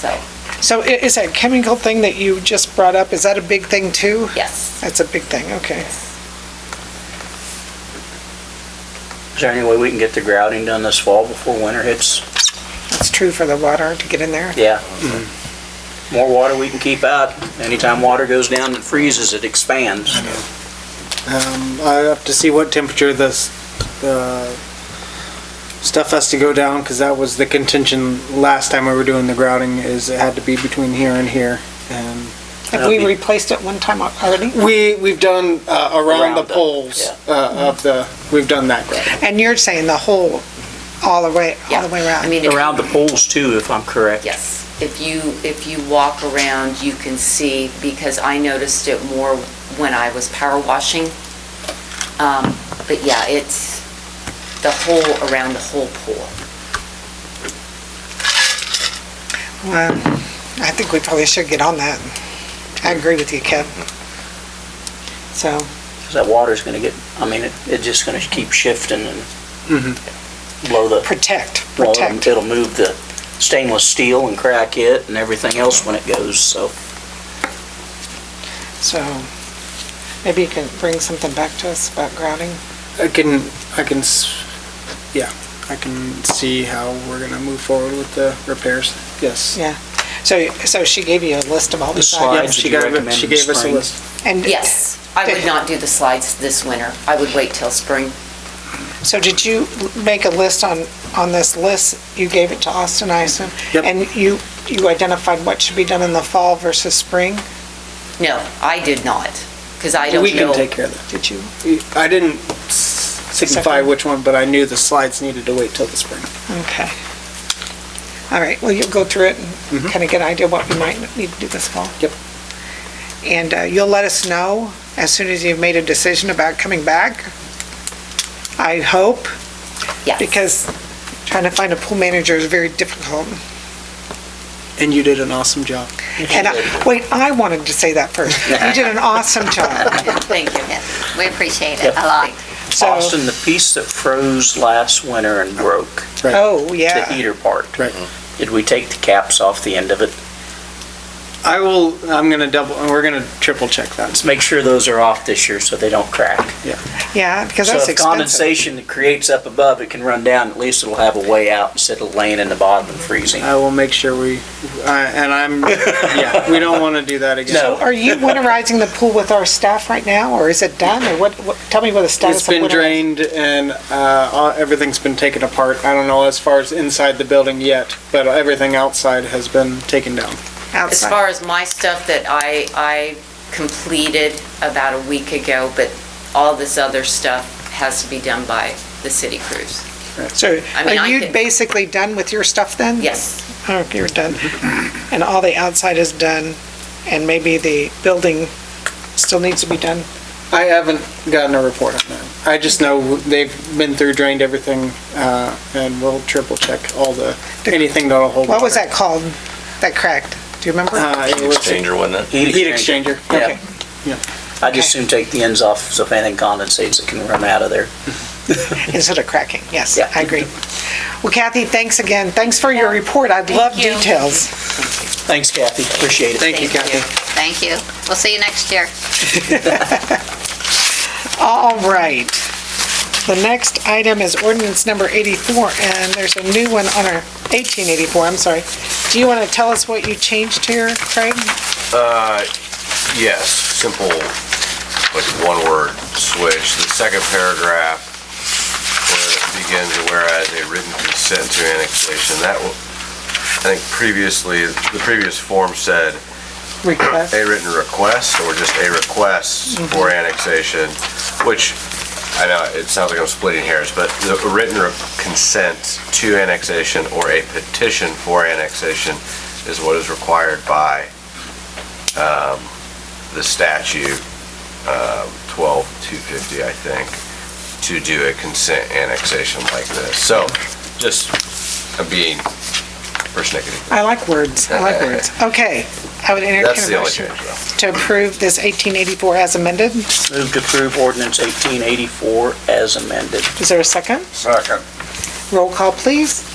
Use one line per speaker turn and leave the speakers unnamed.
so,
So i- is that chemical thing that you just brought up, is that a big thing too?
yes.
That's a big thing, okay.
Is there any way we can get the grouting done this fall before winter hits?
That's true for the water to get in there.
Yeah.
Mm-hmm.
More water we can keep out. Anytime water goes down and freezes, it expands.
Um, I have to see what temperature this, the stuff has to go down, because that was the contention last time we were doing the grouting, is it had to be between here and here. And
Have we replaced it one time already?
we, we've done, uh, around
Around
the
the-
poles, uh, of the, we've done that grouting.
And you're saying the whole, all the way, all the way
Yeah, I
around?
mean, if-
Around the pools too, if I'm correct.
Yes, if you, if you walk around, you can see, because I noticed it more when I was power washing. Um, But yeah, it's the whole, around the whole pool.
Well, I think we probably should get on that. I agree with you, Kev. So,
'Cause that water's gonna get, I mean, it- it's just gonna keep shifting and
Mhm.
Mm-hmm.
blow the,
protect,
blow
um,
it,
protect.
it'll move the stainless steel and crack it and everything else when it goes, so.
So maybe you can bring something back to us about grouting?
I can, I can, s- yeah, I can see how we're gonna move forward with the repairs, yes.
Yeah. So, so she gave you a list of all
The
these
slide.
Yeah,
items?
Did
she
you
gave, it-
recommend
she gave us a
spring?
list.
And
Yes, I would not do the slides this winter. I would wait till spring.
So did you make a list on, on this list? You gave it to Austin, I assume?
Yep.
And you, you identified what should be done in the fall versus spring?
No, I did not, because I don't know.
We can take care of that.
Did you?
I didn't s- signify
Second.
which one, but I knew the slides needed to wait till the spring.
Okay. All right, well, you'll go through it and kind of get an idea what we might need to do this fall?
Mm-hmm. Yep.
And uh, you'll let us know as soon as you've made a decision about coming back? I hope,
Yes.
because trying to find a pool manager is very difficult.
Mm-hmm. And you did an awesome job.
And, I- wait, I wanted to say that first. You did an awesome job.
Thank you.
We appreciate it a lot.
So-
Austin, the piece that froze last winter and broke,
Oh,
the
yeah.
heater part.
Right.
Oh.
Did we take the caps off the end of it?
I will, I'm gonna double, we're gonna triple check that.
Let's make sure those are off this year so they don't crack.
Yeah, because
So
that's
if
expensive.
condensation that creates up above, it can run down, at least it'll have a way out instead of laying in the bottom and freezing.
I will make sure we, I- and I'm, yeah, we don't wanna do that again.
No.
Are you winterizing the pool with our staff right now, or is it done, or what, what- tell me what the status
It's
of
been
winterizing-
drained and, uh, all- everything's been taken apart. I don't know as far as inside the building yet, but everything outside has been taken down.
As
outside?
far as my stuff that I, I completed about a week ago, but all this other stuff has to be done by the city crews.
So
I mean,
are
I
you
could-
basically done with your stuff then?
Yes,
Oh, you're done. And all the outside is done, and maybe the building still needs to be done?
I haven't gotten a report on that. I just know they've been through, drained everything, uh, and we'll triple check all the, anything that'll hold.
What was
water.
that called, that cracked? Do you remember?
Uh, it was
exchanger, wasn't it?
heat exchanger.
Yeah,
Yeah.
I just soon take the ends off so if anything condensates, it can run out of there.
Instead of cracking, yes,
Yeah.
I agree. Well, Kathy, thanks again. Thanks for your report. I'd love
you.
details.
Thanks Kathy, appreciate it.
Thank you,
Thank you.
Kathy.
Thank you. We'll see you next year.
All right. The next item is ordinance number 84, and there's a new one on our, 1884, I'm sorry. Do you want to tell us what you changed here, Craig?
Yes, simple, like one word switch. The second paragraph where it begins, whereas a written consent to annexation, that, wa- I think previously, the previous form said
Request?
a written request or just a request for annexation, which, I know, it sounds like I'm splitting hairs, but the written re- consent to annexation or a petition for annexation is what is required by um, the statute, um, 12250, I think, to do a consent annexation like this. So, just, I'm being persnickety.
I like words, I like words. Okay, I would
That's
entertain
the
a
only
motion
change, though.
to approve this 1884 as amended.
Move to approve ordinance 1884 as amended.
Is there a second?
Second.
Roll call, please.